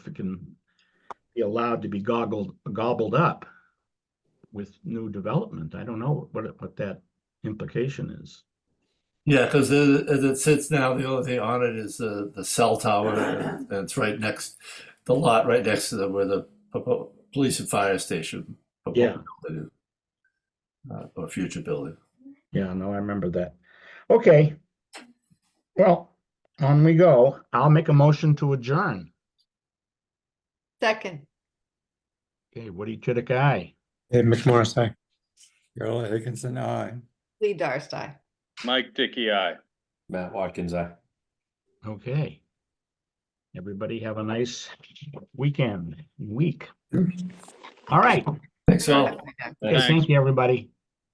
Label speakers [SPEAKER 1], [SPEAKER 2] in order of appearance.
[SPEAKER 1] can be allowed to be goggled, gobbled up with new development. I don't know what, what that implication is.
[SPEAKER 2] Yeah, because as it sits now, the only thing on it is the, the cell tower and it's right next, the lot right next to the, where the propo- police and fire station. proposed
[SPEAKER 1] Yeah.
[SPEAKER 2] building is, uh, Or future building.
[SPEAKER 1] Yeah, no, I remember that. Okay. Well, on we go. I'll make a motion to adjourn.
[SPEAKER 3] Second,
[SPEAKER 1] Okay, Woody Chidick, aye.
[SPEAKER 4] Dave McMorris, aye. Carol Higginson, aye.
[SPEAKER 3] Lee Darcey.
[SPEAKER 5] Mike Dickey, I.
[SPEAKER 6] Matt Watkins, aye.
[SPEAKER 1] Okay. Everybody have a nice weekend, week. All right.
[SPEAKER 2] Thanks all.
[SPEAKER 1] Okay,
[SPEAKER 5] Thanks.
[SPEAKER 1] Thank you, everybody.